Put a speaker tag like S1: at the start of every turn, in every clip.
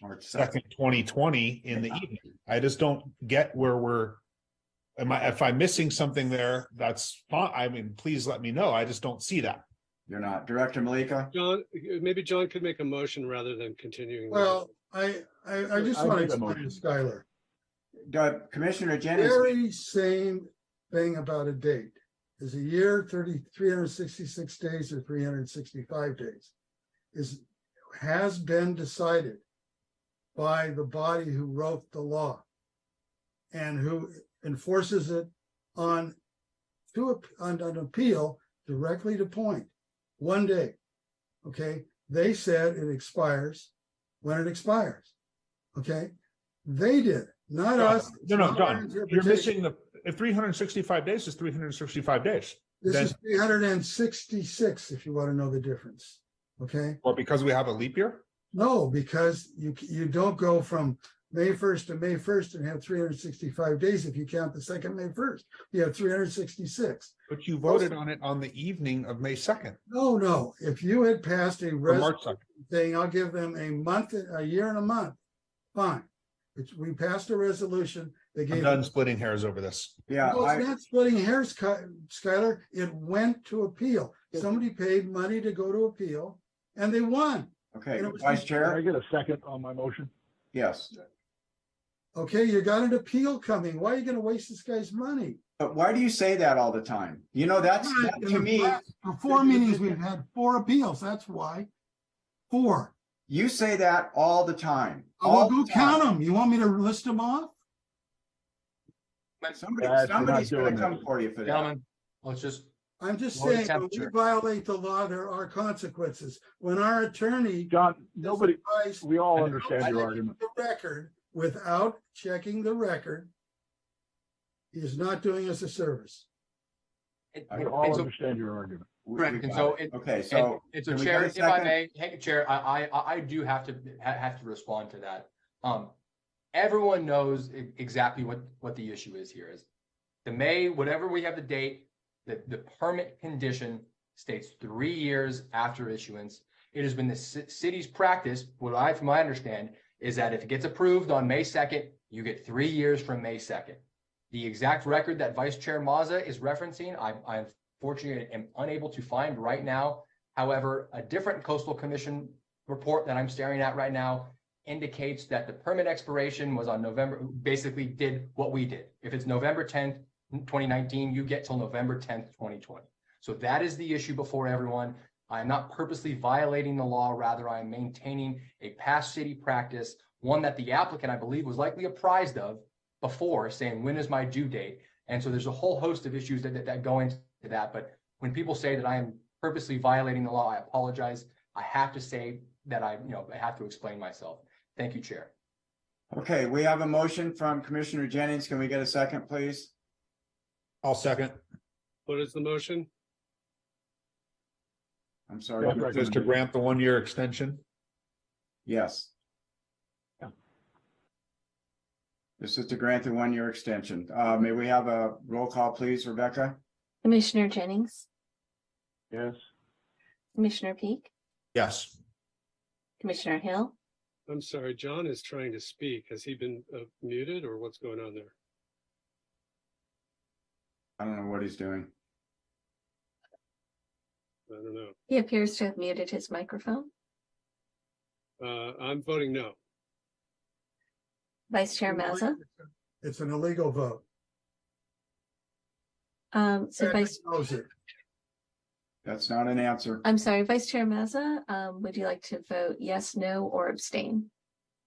S1: March second.
S2: second, twenty twenty in the evening. I just don't get where we're. Am I, if I'm missing something there, that's fine. I mean, please let me know. I just don't see that.
S1: You're not. Director Malika?
S3: John, maybe John could make a motion rather than continuing. the-
S4: Well, I, I, I just
S1: I
S4: want to
S1: think I'm
S4: explain
S1: okay.
S4: to Skylar,
S1: Go- Commissioner Jennings,
S4: very same thing about a date. Is a year thirty, three hundred sixty-six days or three hundred sixty-five days? Is, has been decided by the body who wrote the law and who enforces it on to, a- on an appeal directly to point, one day. Okay, they said it expires when it expires. Okay, they did, not us.
S2: No, no,
S4: Not our
S2: John, you're
S4: interpretation.
S2: missing the, if three hundred and sixty-five days is three hundred and sixty-five days.
S4: This
S2: then-
S4: is three hundred and sixty-six, if you want to know the difference. Okay,
S2: Or because we have a leap year?
S4: no, because you, you don't go from May first to May first and have three hundred sixty-five days if you count the second May first. You have three hundred sixty-six.
S2: But you voted on it on the evening of May second,
S4: No, no, if you had passed a
S2: or
S4: res-
S2: March second.
S4: thing, I'll give them a month, a year and a month. Fine. It's, we passed a resolution. They
S2: I'm
S4: gave.
S2: done splitting hairs over this.
S1: yeah,
S4: No, it's
S1: I,
S4: not splitting hairs, Sky- Skylar. It went to appeal.
S5: Yeah.
S4: Somebody paid money to go to appeal and they won.
S1: okay,
S4: you know, it's
S1: Vice
S4: not-
S5: Can I
S1: Chair,
S5: get a second on my motion?
S1: yes.
S4: Okay, you got an appeal coming. Why are you gonna waste this guy's money?
S1: But why do you say that all the time? You know, that's, that to me,
S4: For four meetings, we've had four appeals. That's why. Four.
S1: you say that all the time.
S4: I will
S1: all
S4: go
S1: the time.
S4: count them. You want me to list them off?
S1: Somebody,
S5: Guys, we're not
S1: somebody's gonna
S5: doing
S1: come
S5: this.
S1: for you for that.
S6: Gentlemen, let's just,
S4: I'm just
S6: Lower
S4: saying, when we
S6: temperature.
S4: violate the law, there are consequences. When our attorney
S5: John, nobody,
S4: buys
S5: we all understand your argument.
S4: the record without checking the record, he is not doing us a service.
S6: it-
S1: I
S5: We
S6: it's
S5: all
S6: a-
S5: understand your argument.
S1: We- we
S6: correct, and
S1: got
S6: so
S1: it.
S6: it-
S1: Okay,
S6: and
S1: so
S6: it's a
S1: can we
S6: chair,
S1: get
S6: if
S1: a
S6: I
S1: second?
S6: may, hey, Chair, I, I- I, I do have to, ha- have to respond to that. Um, everyone knows e- exactly what, what the issue is here is. The May, whatever we have the date, the, the permit condition states three years after issuance. It has been the ci- city's practice, what I, from my understand, is that if it gets approved on May second, you get three years from May second. The exact record that Vice Chair Mazza is referencing, I, I unfortunately am unable to find right now. However, a different coastal commission report that I'm staring at right now indicates that the permit expiration was on November, basically did what we did. If it's November tenth, twenty nineteen, you get till November tenth, twenty twenty. So that is the issue before everyone. I'm not purposely violating the law, rather I am maintaining a past city practice, one that the applicant, I believe, was likely apprised of before, saying, when is my due date? And so there's a whole host of issues that, that, that go into that, but when people say that I am purposely violating the law, I apologize. I have to say that I, you know, I have to explain myself. Thank you, Chair.
S1: Okay, we have a motion from Commissioner Jennings. Can we get a second, please?
S2: I'll second.
S3: What is the motion?
S1: I'm sorry.
S5: Yeah,
S1: Commissioner-
S2: Just to grant the one-year extension.
S1: Yes.
S5: Yeah.
S1: This is to grant the one-year extension. Uh, may we have a roll call, please, Rebecca?
S7: Commissioner Jennings,
S5: Yes,
S7: Commissioner Peak,
S2: Yes.
S7: Commissioner Hill,
S3: I'm sorry, John is trying to speak. Has he been uh, muted or what's going on there?
S1: I don't know what he's doing.
S3: I don't know.
S7: he appears to have muted his microphone.
S3: Uh, I'm voting no.
S7: Vice Chair Mazza,
S4: It's an illegal vote.
S7: um, so
S4: Patrick
S7: Vice,
S4: knows it.
S1: That's not an answer.
S7: I'm sorry, Vice Chair Mazza, um, would you like to vote yes, no, or abstain?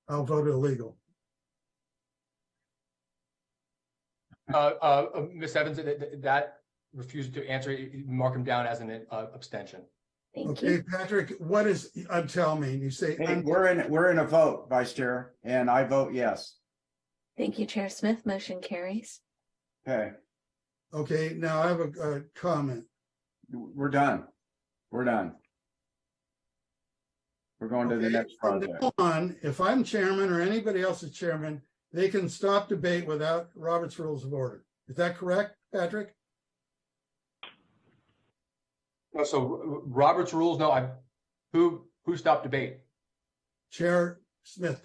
S4: I'll vote illegal.
S6: Uh, uh, uh, Ms. Evans, th- th- that refused to answer, You- you mark him down as an uh, abstention.
S7: Thank
S4: Okay,
S7: you.
S4: Patrick, what is, I'm telling me, you say,
S1: Hey, we're in, we're in a vote, Vice Chair, and I vote yes.
S7: Thank you, Chair Smith. Motion carries.
S1: Okay,
S4: okay, now I have a, a comment.
S1: we're done. We're done. We're going to the
S4: Okay,
S1: next
S4: from
S1: project.
S4: now On, if I'm chairman or anybody else is chairman, they can stop debate without Robert's Rules of Order. Is that correct, Patrick?
S6: No, Uh, So R- R- Robert's rules, no, I, who, who stopped debate?
S4: Chair Smith